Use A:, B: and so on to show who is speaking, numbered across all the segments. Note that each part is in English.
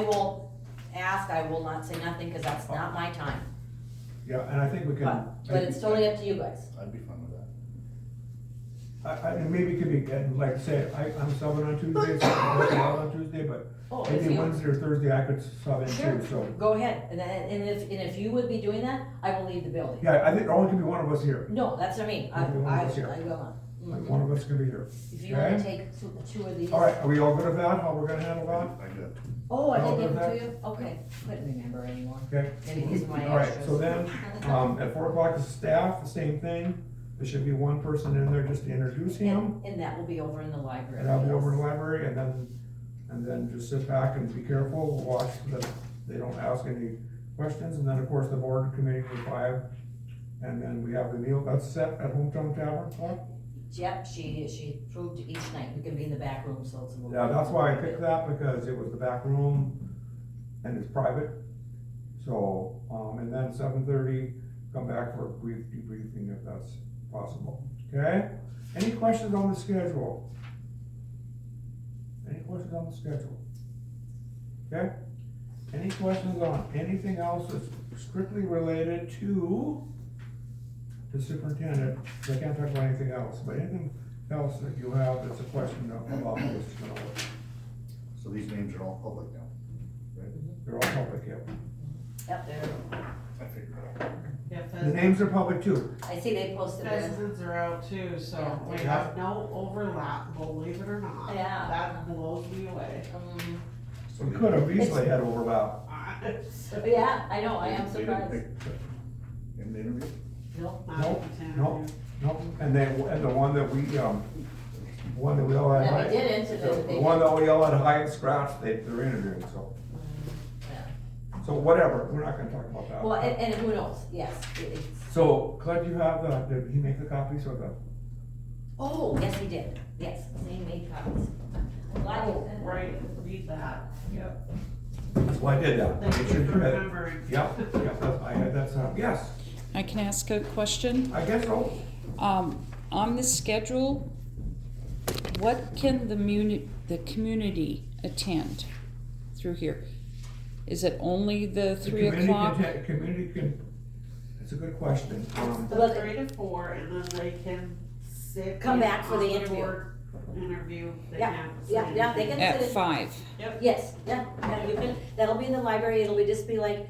A: will ask, I will not say nothing, cause that's not my time,
B: Yeah, and I think we can.
A: but, but it's totally up to you guys.
C: I'd be fine with that.
B: I, I, and maybe it could be, and like say, I, I'm subbing on Tuesday, so I'm working out on Tuesday, but
A: Oh, if
B: maybe
A: you,
B: Wednesday or Thursday I could sub in
A: Sure.
B: too, so.
A: go ahead, and, then- and if, and if you would be doing that, I will leave the building.
B: Yeah, I think there only can be one of us here,
A: No, that's what I mean, I,
B: You're the one
A: I,
B: that's here.
A: I will not.
B: like
A: Mm-mm.
B: one of us can be here.
A: If you wanna
B: Okay.
A: take two, two of these.
B: All right, are we all good with that, how we're gonna handle that?
C: I got two.
A: Oh, I
B: All
A: didn't give
B: of
A: them to
B: that?
A: you, okay, couldn't remember anymore,
B: Okay.
A: maybe these are my
B: All right,
A: extras.
B: so then, um, at four o'clock is staff, the same thing, there should be one person in there just to introduce him,
A: And, and that will be over in the library.
B: and I'll be over in the library, and then, and then just sit back and be careful, watch that they don't ask any questions, and then, of course, the board committee for five, and then we have the meal, that's set at Hometown Tavern, Paul?
A: Yep, she, she proved each night, we can be in the back room, so it's a little.
B: Yeah, that's why I picked that, because it was the back room, and it's private. So, um, and then seven thirty, come back for a brief debriefing if that's possible, okay? Any questions on the schedule? Any questions on the schedule? Okay? Any questions on anything else that's strictly related to the superintendent? 'Cause I can't talk about anything else, but anything else that you have that's a question about this, you know,
C: So these names are all public now.
B: They're all public, yeah.
A: Yep, there,
C: I figured it out.
D: Yeah,
B: The names are public too.
A: I see they posted this,
D: pheasants are out too, so we
B: Yeah.
D: have no overlap, believe it or not.
A: Yeah.
D: That blows me away.
A: um,
C: So
B: We
C: they-
B: could have easily had overlap.
A: but yeah, I know, I am
C: they didn't
A: surprised,
C: pick the- In the interview?
A: no,
B: Nope, nope. Nope, and then, and the one that we, um, one that we all had.
A: Yeah, they
B: Hyatt-
A: didn't, so
B: the-
A: they-
B: The one that we all had Hyatt scratch, they, they're interviewing, so,
A: yeah,
B: so whatever, we're not gonna talk about that.
A: well, and, and who knows, yes, it- it's,
B: So, Claire, do you have the, did he make the copies or the?
A: oh, yes, he did, yes, they made copies. I'm glad you said that.
D: Right, Oh, read that, yep.
B: That's why I did that.
D: Thank
B: It
D: you
B: should
D: for
B: be-
D: remembering.
B: Yep, yep, that's, I had, that's, uh, yes,
E: I can ask a question.
B: I guess so.
E: Um, on the schedule, what can the muni, the community attend through here? Is it only the
B: The
E: three
B: community
E: o'clock?
B: content- Community can, it's a good question. Um,
D: It's
A: Well,
D: three to four, and then they can sit.
A: Come
D: in
A: back for the
D: on
A: interview.
D: board Interview, they
A: Yeah,
D: can't. say
A: yeah, yeah, they
D: anything.
A: can
E: At
A: sit in-
E: five?
A: Oh, Yes, yeah, yeah, you can, that'll be in the library, it'll be, just be like,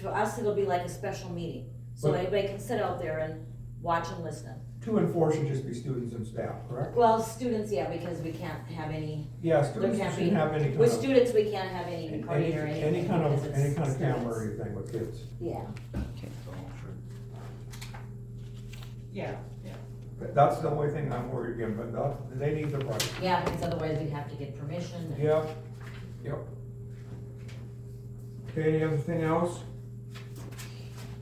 A: for us, it'll be like a special meeting. So
B: But-
A: anybody can sit out there and watch and listen.
B: Two and four should just be students and staff, correct?
A: Well, students, yeah, because we can't have any,
B: Yeah,
A: there
B: students
A: can't
B: shouldn't have any
A: be,
B: kind
A: with
B: of,
A: students, we can't have any
B: any,
A: recording or anything.
B: any kind of,
A: because it's
B: any kind of camera or
A: students.
B: anything with kids.
A: Yeah,
C: So I'm sure.
D: Yeah, yeah.
B: But That's the only thing I'm worried again, but that, they need the right.
A: yeah, because otherwise we'd have to get permission. and-
B: Yep, yep. Okay, any other thing else?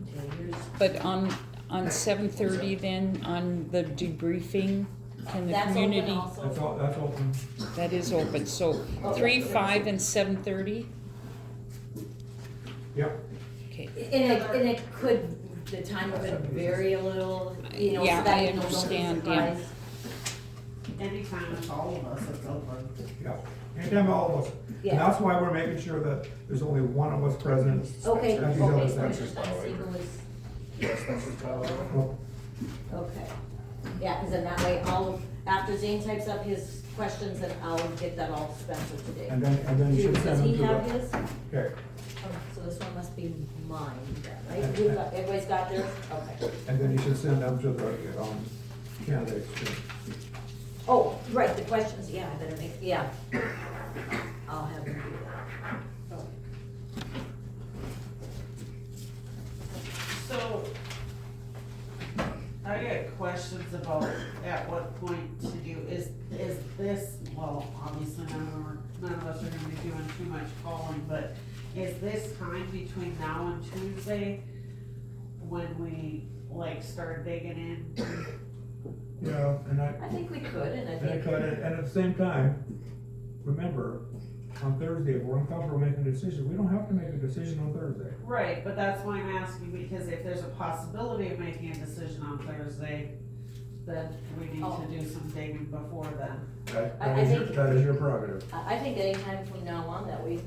A: Okay, here's-
E: But on, on seven thirty then, on the debriefing, can the
A: That's open
E: community?
B: That's
A: also.
B: all, that's open.
E: That is open, so three, five, and seven thirty?
B: Yep,
E: Okay,
A: And it, and it could, the time could vary a little, you know, so
E: Yeah,
A: that
E: I
A: you know, don't be
E: understand, yeah.
A: surprised.
D: Anytime with all of us, it's open.
B: yep. Anytime all of us. And
A: Yeah,
B: that's why we're making sure that there's only one of us present.
A: okay,
B: That's
A: okay.
B: these other
A: I
B: sections.
A: see who was-
C: Yeah, Spencer's Tyler.
B: Well,
A: Okay, yeah, cause then that way I'll after Zane types up his questions, then I'll get that all to Spencer today.
B: And then, and then
A: Do-
B: you should
A: Does
B: send them
A: he
B: to
A: have
B: the,
A: his?
B: okay,
A: Oh, so this one must be mine, then, right?
B: And-
A: You've got, everybody's got theirs, okay.
B: and then you should send them to the, um, candidates. too.
A: Oh, right, the questions, yeah, I better make, yeah. I'll have him do that.
D: So, I get questions about at what point to do, is, is this, well, obviously none of our- none of us are gonna be doing too much calling, but is this time between now and Tuesday when we like start digging in?
B: Yeah, and I,
A: I think we could, and I
B: And I
A: think,
B: thought, and at the same time, remember, on Thursday, if we're uncomfortable making a decision, we don't have to make a decision on Thursday.
D: Right, but that's why I'm asking, because if there's a possibility of making a decision on Thursday, then we need
A: Oh.
D: to do some digging before then.
B: That-
A: I-
B: That
A: I
B: is your,
A: think-
B: that is your prerogative.
A: I I think anytime from now on that we